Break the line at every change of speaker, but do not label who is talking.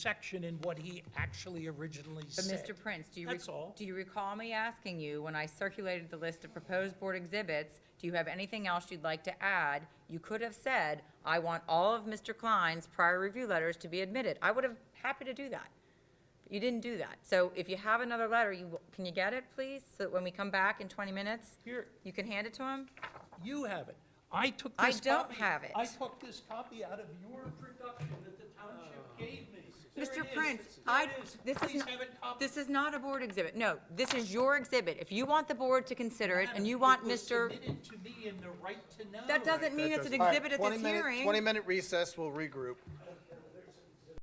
section in what he actually originally
But
said.
Mr. Prince, do you, rec-
That's all.
do you recall me asking you, when I circulated the list of proposed board exhibits, do you have anything else you'd like to add? You could have said, I want all of Mr. Klein's prior review letters to be admitted. I would have happy to do that. But You didn't do that. So if you have another letter, you, can you get it, please? So that when we come back in 20 minutes,
Here.
you can hand it to him?
You have it. I took
I
this
don't
copy-
have it.
I took this copy out of your production that the township gave me. There it
Mr.
is.
Prince,
There
I,
it is.
this is,
Please
not-
have it copied.
this is not a board exhibit. No, this is your exhibit. If you want the board to consider it and you
Madam,
want
it was
Mr.
submitted to me in the right to know.
That doesn't mean it's an exhibit at this
20 minute-
hearing.
20 minute recess, we'll regroup.